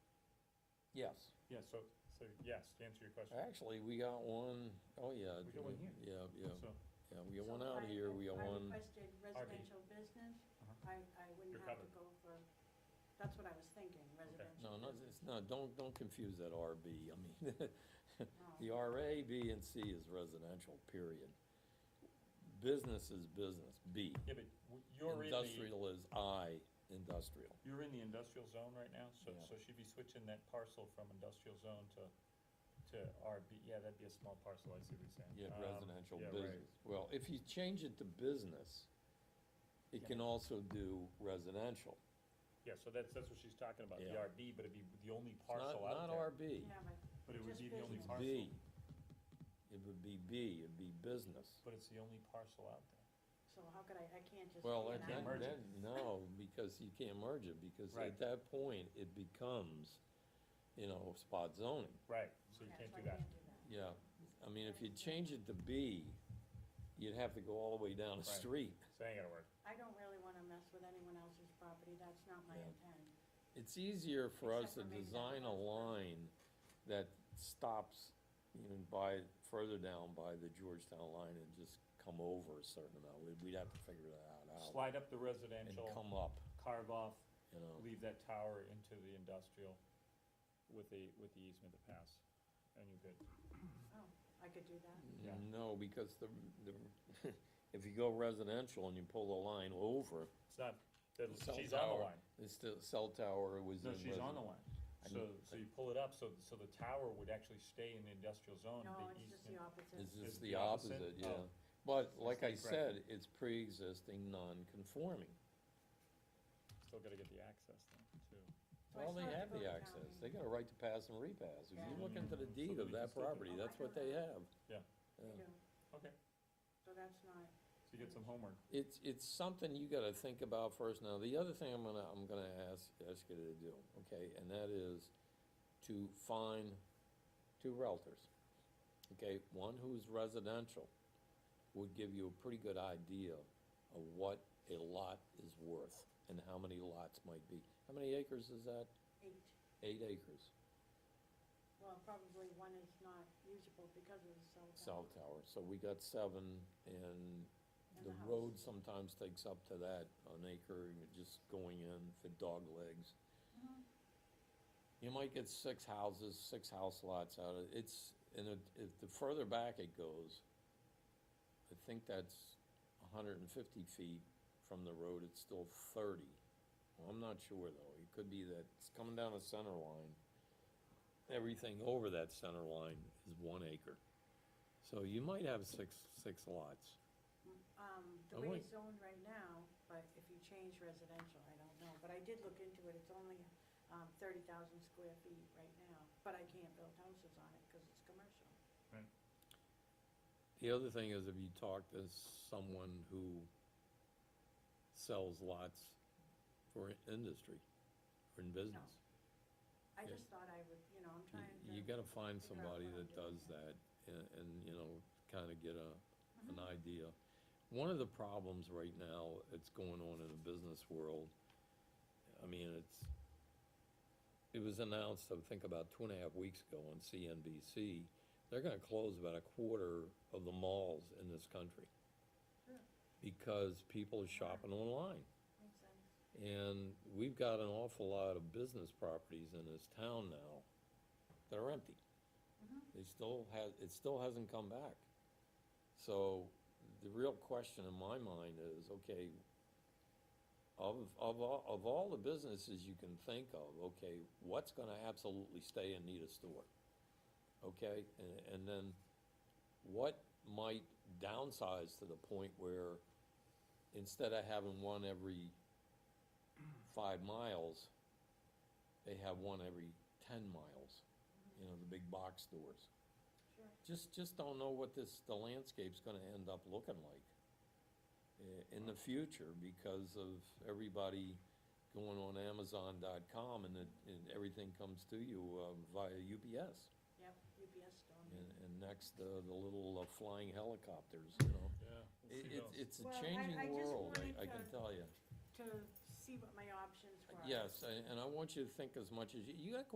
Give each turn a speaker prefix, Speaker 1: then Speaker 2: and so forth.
Speaker 1: Yes.
Speaker 2: Yeah, so, so yes, to answer your question.
Speaker 1: Actually, we got one, oh, yeah.
Speaker 2: We got one here.
Speaker 1: Yeah, yeah,
Speaker 2: So,
Speaker 1: yeah, we got
Speaker 3: So
Speaker 1: one
Speaker 3: if
Speaker 1: out
Speaker 3: I-
Speaker 1: here, we got
Speaker 3: If I
Speaker 1: one,
Speaker 3: requested residential business,
Speaker 2: uh-huh.
Speaker 3: I, I wouldn't
Speaker 2: You're
Speaker 3: have to
Speaker 2: covered.
Speaker 3: go for, that's what I was thinking, residential. Oh,
Speaker 1: no, no, it's not, don't, don't confuse that RB, I mean,
Speaker 3: No.
Speaker 1: the RA, B, and C is residential, period. Business is business, B.
Speaker 2: yeah, but w- you're in the,
Speaker 1: Industrial is I, industrial.
Speaker 2: you're in the industrial zone right now, so,
Speaker 1: Yeah.
Speaker 2: so she'd be switching that parcel from industrial zone to, to RB, yeah, that'd be a small parcel, I see what you're saying.
Speaker 1: Yeah,
Speaker 2: Um,
Speaker 1: residential
Speaker 2: yeah, right.
Speaker 1: business. Well, if you change it to business, it
Speaker 2: Yeah.
Speaker 1: can also do residential.
Speaker 2: Yeah, so that's, that's what she's talking about, the
Speaker 1: Yeah.
Speaker 2: RB, but it'd be the only
Speaker 1: It's
Speaker 2: parcel out
Speaker 1: Not, not
Speaker 2: there.
Speaker 1: RB,
Speaker 3: Yeah, but
Speaker 2: But it would
Speaker 3: Just
Speaker 2: be the only
Speaker 1: it's
Speaker 3: business.
Speaker 1: B.
Speaker 2: parcel,
Speaker 1: It would be B, it'd be business.
Speaker 2: but it's the only parcel out there.
Speaker 3: So how could I, I can't just.
Speaker 1: Well, at
Speaker 3: be an
Speaker 2: can't
Speaker 1: that,
Speaker 3: island.
Speaker 2: merge
Speaker 1: that-
Speaker 2: it.
Speaker 1: no, because you can't merge it, because
Speaker 2: Right.
Speaker 1: at that point, it becomes, you know, spot zoning.
Speaker 2: Right, so you
Speaker 3: Yeah,
Speaker 2: can't
Speaker 3: so
Speaker 2: do
Speaker 3: I
Speaker 2: that.
Speaker 3: can't do that.
Speaker 1: Yeah, I mean, if you change it to B, you'd have to go all the way down the
Speaker 2: Right.
Speaker 1: street.
Speaker 2: So that ain't gonna work.
Speaker 3: I don't really wanna mess with anyone else's property, that's not my
Speaker 1: Yeah.
Speaker 3: intent.
Speaker 1: It's easier for us to
Speaker 3: Except for maybe that
Speaker 1: design a
Speaker 3: last one.
Speaker 1: line that stops even by, further down by the Georgetown line and just come over a certain amount. We'd, we'd have to figure that out, out
Speaker 2: Slide up the
Speaker 1: Oh. and
Speaker 2: residential,
Speaker 1: come up,
Speaker 2: carve off,
Speaker 1: you know.
Speaker 2: leave that tower into the industrial with the, with the easement to pass, and you're good.
Speaker 3: Oh, I could do that?
Speaker 2: Yeah.
Speaker 1: No, because the, the, if you go residential and you pull the line over,
Speaker 2: It's not,
Speaker 1: the
Speaker 2: that-
Speaker 1: cell
Speaker 2: she's on the
Speaker 1: tower,
Speaker 2: line.
Speaker 1: it's the cell tower was in.
Speaker 2: No, she's on the
Speaker 1: resi-
Speaker 2: line.
Speaker 1: I
Speaker 2: So,
Speaker 1: mean,
Speaker 2: so you pull it up, so, so the tower would actually stay in the industrial zone.
Speaker 3: No,
Speaker 2: the
Speaker 3: it's just the
Speaker 2: easement-
Speaker 3: opposite.
Speaker 1: It's just
Speaker 2: It's
Speaker 1: the
Speaker 2: the opposite?
Speaker 1: opposite, yeah.
Speaker 2: Oh.
Speaker 1: But like I
Speaker 2: That's incorrect.
Speaker 1: said, it's pre-existing, non-conforming.
Speaker 2: Still gotta get the access then, too.
Speaker 3: So I
Speaker 1: Well, they
Speaker 3: still
Speaker 1: have
Speaker 3: to go
Speaker 1: the
Speaker 3: to
Speaker 1: access,
Speaker 3: county.
Speaker 1: they got a right to pass and repass, if
Speaker 3: Yeah.
Speaker 1: you look into the
Speaker 2: Mm,
Speaker 1: deed
Speaker 2: so
Speaker 1: of
Speaker 2: we can
Speaker 1: that
Speaker 2: still do
Speaker 1: property,
Speaker 3: that.
Speaker 1: that's what they have.
Speaker 2: Yeah.
Speaker 3: They
Speaker 1: Yeah.
Speaker 3: do,
Speaker 2: Okay,
Speaker 3: so that's not,
Speaker 2: so you get some homework.
Speaker 1: It's, it's something you gotta think about first, now, the other thing I'm gonna, I'm gonna ask, ask you to do, okay, and that is to find two realtors. Okay, one who's residential would give you a pretty good idea of what a lot is worth and how many lots might be. How many acres is that?
Speaker 3: eight,
Speaker 1: Eight acres.
Speaker 3: well, probably one is not usable because of the cell tower.
Speaker 1: cell tower, so we got seven, and
Speaker 3: And
Speaker 1: the
Speaker 3: the house.
Speaker 1: road sometimes takes up to that, an acre, you're just going in for dog legs.
Speaker 3: Mhm.
Speaker 1: You might get six houses, six house lots out of, it's, and it, if the further back it goes, I think that's hundred and fifty feet from the road, it's still thirty. Well, I'm not sure though, it could be that it's coming down the center line. Everything over that center line is one acre. So you might have six, six lots.
Speaker 3: Um, the
Speaker 1: I
Speaker 3: way
Speaker 1: like-
Speaker 3: it's zoned right now, but if you change residential, I don't know, but I did look into it, it's only, um, thirty thousand square feet right now, but I can't build houses on it, cause it's commercial.
Speaker 2: Right.
Speaker 1: The other thing is if you talk to someone who sells lots for industry or in business.
Speaker 3: I
Speaker 1: Yeah.
Speaker 3: just thought I would, you know, I'm
Speaker 1: You-
Speaker 3: trying to.
Speaker 1: You gotta find
Speaker 3: figure out
Speaker 1: somebody
Speaker 3: what I'm
Speaker 1: that does
Speaker 3: doing
Speaker 1: that and, and, you know, kinda get a, an
Speaker 3: Mhm.
Speaker 1: idea. One of the problems right now that's going on in the business world, I mean, it's, it was announced, I think about two and a half weeks ago on CNBC, they're gonna close about a quarter of the malls in this country
Speaker 3: Sure,
Speaker 1: because people are shopping online.
Speaker 3: makes sense.
Speaker 1: And we've got an awful lot of business properties in this town now that are empty.
Speaker 3: Mhm.
Speaker 1: It still has, it still hasn't come back. So the real question in my mind is, okay, of, of, all- of all the businesses you can think of, okay, what's gonna absolutely stay and need a store? Okay, and, and then what might downsize to the point where instead of having one every five miles, they have one every ten miles, you know, the big box stores.
Speaker 3: Sure,
Speaker 1: Just, just don't know what this, the landscape's gonna end up looking like i- in the future because of everybody going on Amazon.com and it, and everything comes to you uh, via UPS.
Speaker 3: yep, UPS store.
Speaker 1: And, and next, uh, the little uh, flying helicopters, you know.
Speaker 2: Yeah.
Speaker 1: It,
Speaker 2: we'll see
Speaker 1: it's-
Speaker 2: those.
Speaker 1: it's
Speaker 3: Well,
Speaker 1: a
Speaker 3: I- I
Speaker 1: changing
Speaker 3: just
Speaker 1: world, I
Speaker 3: wanted
Speaker 1: I can
Speaker 3: to-
Speaker 1: tell you.
Speaker 3: To see what my options were.
Speaker 1: Yes, and and I want you to think as much as, you- you got